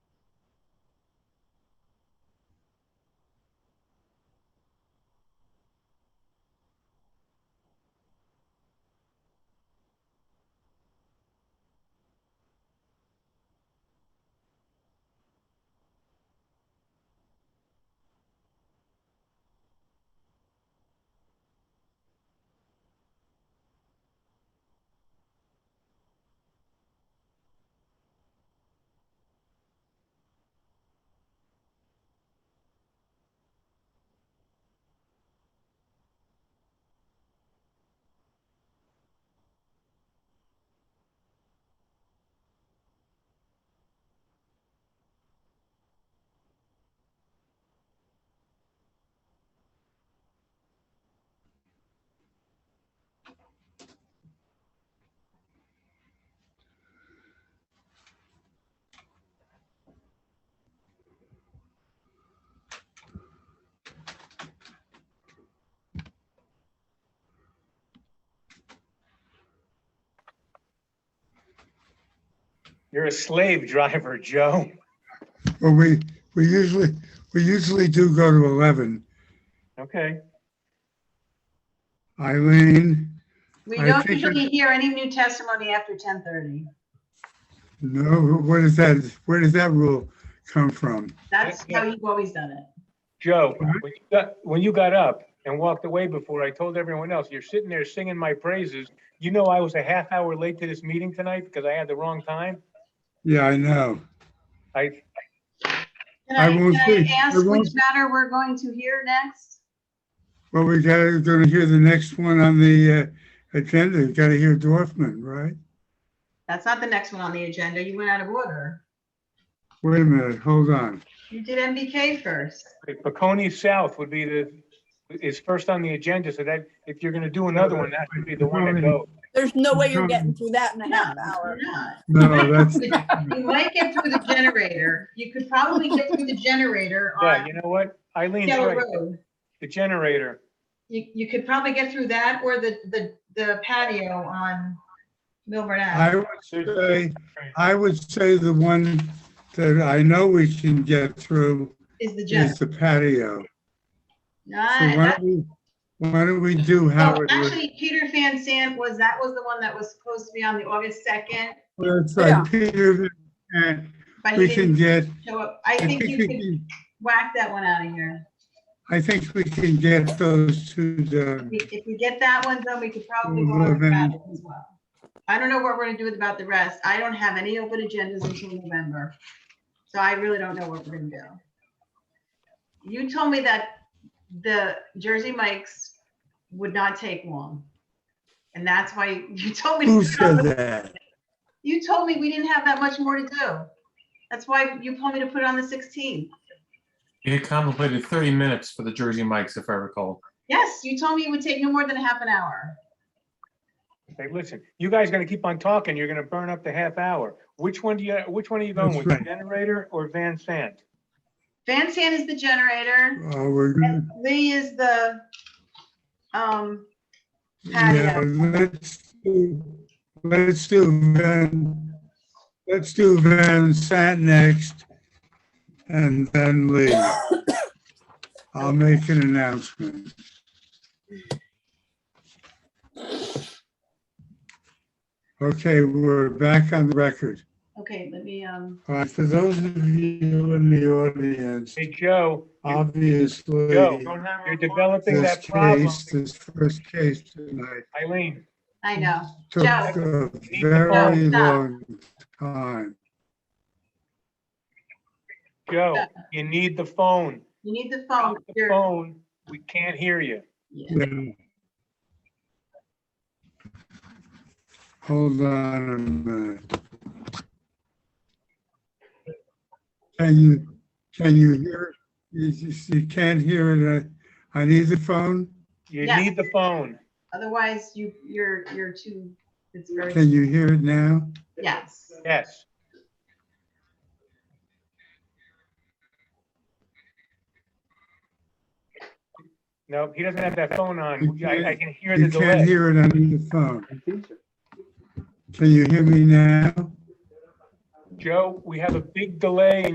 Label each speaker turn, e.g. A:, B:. A: You're a slave driver, Joe.
B: Well, we, we usually, we usually do go to 11.
A: Okay,
B: Eileen,
C: We
B: I
C: don't
B: think
C: usually hear any new testimony after 10:30.
B: no, where does that, where does that rule come from?
C: That's
A: Yeah.
C: how you've always done it.
A: Joe,
B: Mhm.
A: when you got, when you got up and walked away before I told everyone else, you're sitting there singing my praises. You know, I was a half hour late to this meeting tonight because I had the wrong time.
B: Yeah, I know.
A: I,
C: Can
B: I
C: I,
B: won't
C: can
B: see.
C: I
B: I
C: ask
B: won't-
C: which matter we're going to hear next?
B: Well, we gotta, gonna hear the next one on the uh, agenda. You Gotta hear Dorfman, right?
C: That's not the next one on the agenda. You went out of order.
B: Wait a minute, hold on.
C: You did MBK first.
A: Bacconi South would be the, is first on the agenda. So that if you're going to do another one, that would be the one to go.
D: There's no way
B: No.
D: you're getting through that in a
C: No,
D: half
C: we're
D: hour.
C: not.
B: No, that's,
C: You might get through the generator. You could probably get through the generator
A: Yeah,
C: on
A: you know what? Eileen's
C: Hill
A: right.
C: Road.
A: The generator.
C: You, you could probably get through that or the, the, the patio on Milburn
B: I
C: Ave.
B: would say, I would say the one that I know we can get through
C: Is the
B: is
C: gym.
B: the patio. So
C: Nice.
B: why
C: That's-
B: don't we, why don't we do
C: Oh,
B: Howard? List?
C: actually, Peter Van Sant was, that was the one that was supposed to be on the August 2nd,
B: That's
D: Yeah.
B: right, Peter, uh, and
C: but he
B: we can
C: didn't
B: get,
C: show up. I
B: I
C: think
B: think
C: you
B: we
C: could
B: can,
C: whack that one out of here.
B: I think we can get those two
C: If
B: done.
C: we- If we get that one done, we could probably go
B: Well,
C: over
B: then-
C: that as well. I don't know what we're gonna do about the rest. I don't have any open agendas until November. So I really don't know what we're gonna do. You told me that the Jersey Mike's would not take long. And that's why you told me. to
B: Who
C: put it on
B: said
C: the-
B: that?
C: You told me we didn't have that much more to do. That's why you told me to put it on the 16th.
E: You had contemplated 30 minutes for the Jersey Mike's, if I recall.
C: Yes, you told me it would take no more than a half an hour.
A: Hey, listen, you guys gonna keep on talking, you're gonna burn up the half hour. Which one do you, which one are you going
B: That's
A: with, The
B: right.
A: generator or Van Sant?
C: Van Sant is the generator.
B: Oh, we're, gonna-
C: Lee is the, um,
B: yeah, let's, do let's do Van, let's do Van Sat next and then Lee. I'll make an announcement. Okay, we're back on the record.
C: okay, let me, um,
B: All right, for those of you in the audience,
A: Hey, Joe, you-
B: obviously,
A: Joe, you're developing
B: this
A: that problem.
B: case, this first case tonight
A: Eileen,
C: I know.
B: took
C: Joe.
B: a very
C: Joe, stop.
B: long time.
A: Joe, you need the phone.
C: You need the phone.
A: Without the
C: Oh, You're-
A: phone, we can't hear you.
C: yeah.
B: Yeah. Hold on a minute. Can you, can you hear, you, you you can't hear it uh, on either phone?
A: You
C: Yes.
A: need the phone.
C: Otherwise, you, you're, you're too, it's very,
B: Can you hear it now?
C: yes.
A: Yes, no, he doesn't have that phone on.
B: You
A: I, I
B: can't-
A: can hear the
B: You can't
A: delay.
B: hear it on either phone. Can you hear me now?
A: Joe, we have a big delay